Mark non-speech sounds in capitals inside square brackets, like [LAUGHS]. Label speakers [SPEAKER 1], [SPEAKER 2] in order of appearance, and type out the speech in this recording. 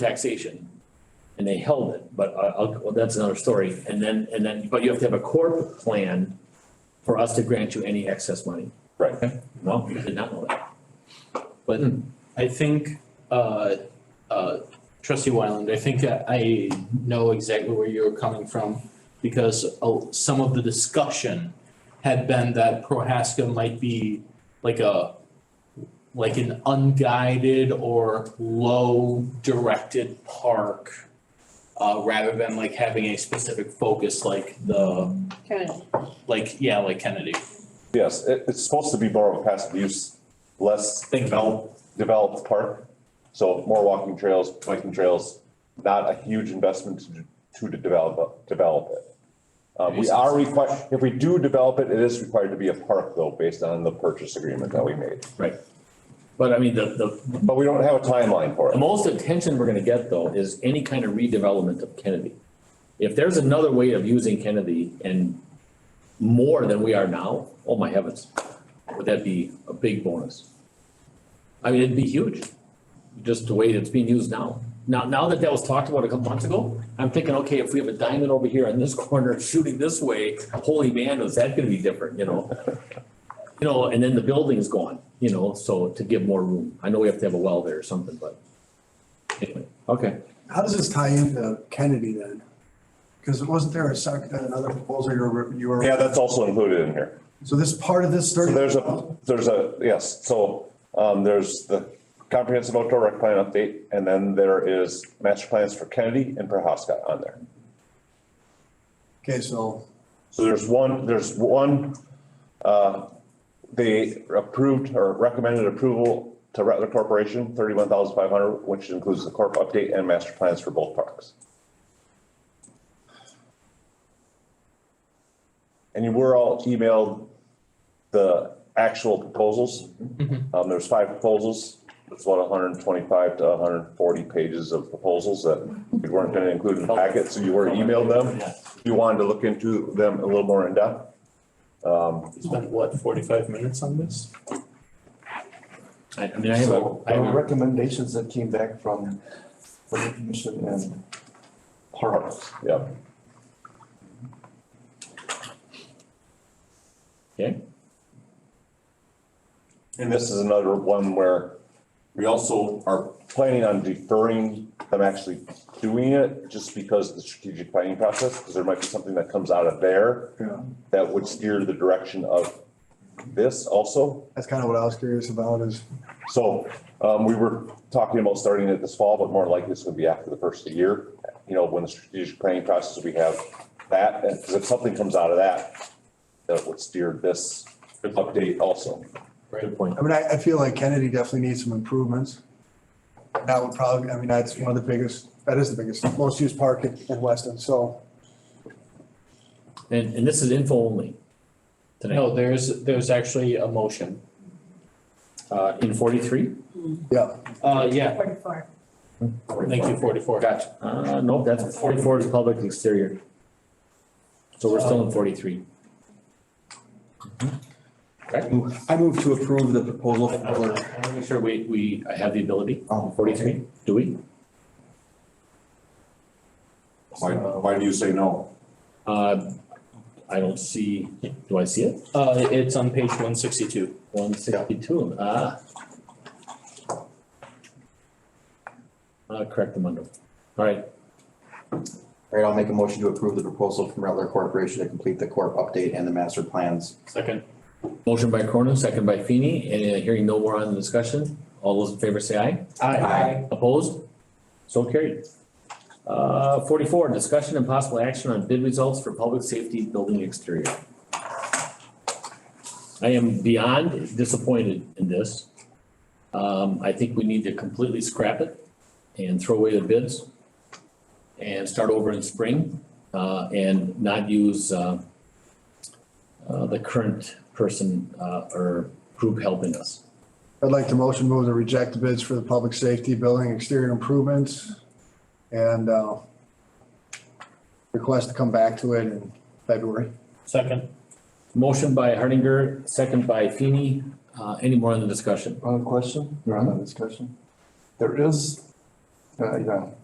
[SPEAKER 1] taxation. And they held it, but I, I'll, well, that's another story. And then, and then, but you have to have a corp plan for us to grant you any excess money.
[SPEAKER 2] Right.
[SPEAKER 1] Well, I did not know that.
[SPEAKER 3] But I think, uh, uh, trustee Wyland, I think I- I know exactly where you're coming from because oh, some of the discussion had been that Prohaska might be like a, like an unguided or low-directed park uh, rather than like having a specific focus like the,
[SPEAKER 4] Kennedy.
[SPEAKER 3] like, yeah, like Kennedy.
[SPEAKER 2] Yes, it, it's supposed to be more of a passive use, less
[SPEAKER 3] Thank you.
[SPEAKER 2] developed, developed park. So more walking trails, biking trails, not a huge investment to, to develop, develop it. Uh, we are required, if we do develop it, it is required to be a park though, based on the purchase agreement that we made.
[SPEAKER 1] But I mean, the, the,
[SPEAKER 2] But we don't have a timeline for
[SPEAKER 1] The
[SPEAKER 2] it.
[SPEAKER 1] most attention we're gonna get though is any kind of redevelopment of Kennedy. If there's another way of using Kennedy and more than we are now, oh my heavens, would that be a big bonus? I mean, it'd be huge, just the way it's being used now. Now, now that that was talked about a couple months ago, I'm thinking, okay, if we have a diamond over here in this [LAUGHS] corner shooting this way, holy man, is that gonna be different, you know? You know, and then the building's gone, you know, so to give more room. I know we have to have a well there or something, but anyway, okay.
[SPEAKER 5] How does this tie into Kennedy then? Because wasn't there a second, another proposal you were, you were?
[SPEAKER 2] Yeah, that's also included in here.
[SPEAKER 5] So this part of this
[SPEAKER 2] So
[SPEAKER 5] thirty?
[SPEAKER 2] There's a, there's a, yes, so, um, there's the comprehensive outdoor rec plan update, and then there is master plans for Kennedy and Prohaska on there.
[SPEAKER 5] Okay, so,
[SPEAKER 2] So there's one, there's one, uh, they approved or recommended approval to Rattler Corporation, thirty-one thousand five hundred, which includes the corp update and master plans for both parks. And you were all emailed the actual proposals. Um, there's five proposals. It's about hundred and twenty-five to hundred and forty pages of proposals that we weren't gonna include in the packet, so you were emailed them
[SPEAKER 1] Yeah.
[SPEAKER 2] you wanted to look into them a little more in depth. Um,
[SPEAKER 3] We Spent what, forty-five minutes on this?
[SPEAKER 1] I, I mean, I have a,
[SPEAKER 6] So
[SPEAKER 1] I
[SPEAKER 6] there
[SPEAKER 1] have
[SPEAKER 6] were
[SPEAKER 1] a-
[SPEAKER 6] recommendations that came back from, from the commission and parks.
[SPEAKER 2] yeah,
[SPEAKER 1] okay,
[SPEAKER 2] and this is another one where we also are planning on deferring them actually doing it just because of the strategic planning process, because there might be something that comes out of there
[SPEAKER 5] yeah,
[SPEAKER 2] that would steer the direction of this also.
[SPEAKER 5] that's kind of what I was curious about is,
[SPEAKER 2] So, um, we were talking about starting it this fall, but more likely it's gonna be after the first of the year. You know, when the strategic planning process, we have that, and 'cause if something comes out of that, that would steer this update also.
[SPEAKER 1] good point.
[SPEAKER 5] I mean, I, I feel like Kennedy definitely needs some improvements. That would probably, I mean, that's one of the biggest, that is the biggest, most used park in, in Weston, so.
[SPEAKER 1] And, and this is info only tonight,
[SPEAKER 3] No, there's, there's actually a motion.
[SPEAKER 1] uh, in forty-three?
[SPEAKER 3] Uh, yeah,
[SPEAKER 4] Forty-four.
[SPEAKER 3] thank you, forty-four.
[SPEAKER 1] Gotcha. Uh, nope, that's forty-four is public exterior. So we're still in forty-three.
[SPEAKER 6] I move to approve the proposal
[SPEAKER 1] I wanna
[SPEAKER 6] for.
[SPEAKER 1] I wanna make sure we, we have the ability,
[SPEAKER 6] Oh,
[SPEAKER 1] forty-three, do we?
[SPEAKER 7] Why, why do you say no?
[SPEAKER 1] Uh, I don't see, do I see it?
[SPEAKER 3] Uh, it's on page one sixty-two.
[SPEAKER 1] One sixty-two, ah. Uh, correct them under, all right,
[SPEAKER 6] All right, I'll make a motion to approve the proposal from Rattler Corporation to complete the corp update and the master plans.
[SPEAKER 3] Second.
[SPEAKER 1] motion by Cronin, second by Feeny, and uh, hearing no more on the discussion, all those in favor say aye.
[SPEAKER 6] Aye.
[SPEAKER 1] Opposed? So carried. Uh, forty-four, discussion and possible action on bid results for public safety building exterior. I am beyond disappointed in this. Um, I think we need to completely scrap it and throw away the bids and start over in spring, uh, and not use, uh, uh, the current person, uh, or group helping us.
[SPEAKER 5] I'd like to motion move to reject the bids for the public safety building exterior improvements and, uh, request to come back to it in February.
[SPEAKER 3] Second.
[SPEAKER 1] Motion by Hardinger, second by Feeny. Uh, any more on the discussion?
[SPEAKER 6] On question? You're on the discussion? There is,
[SPEAKER 5] uh, you know,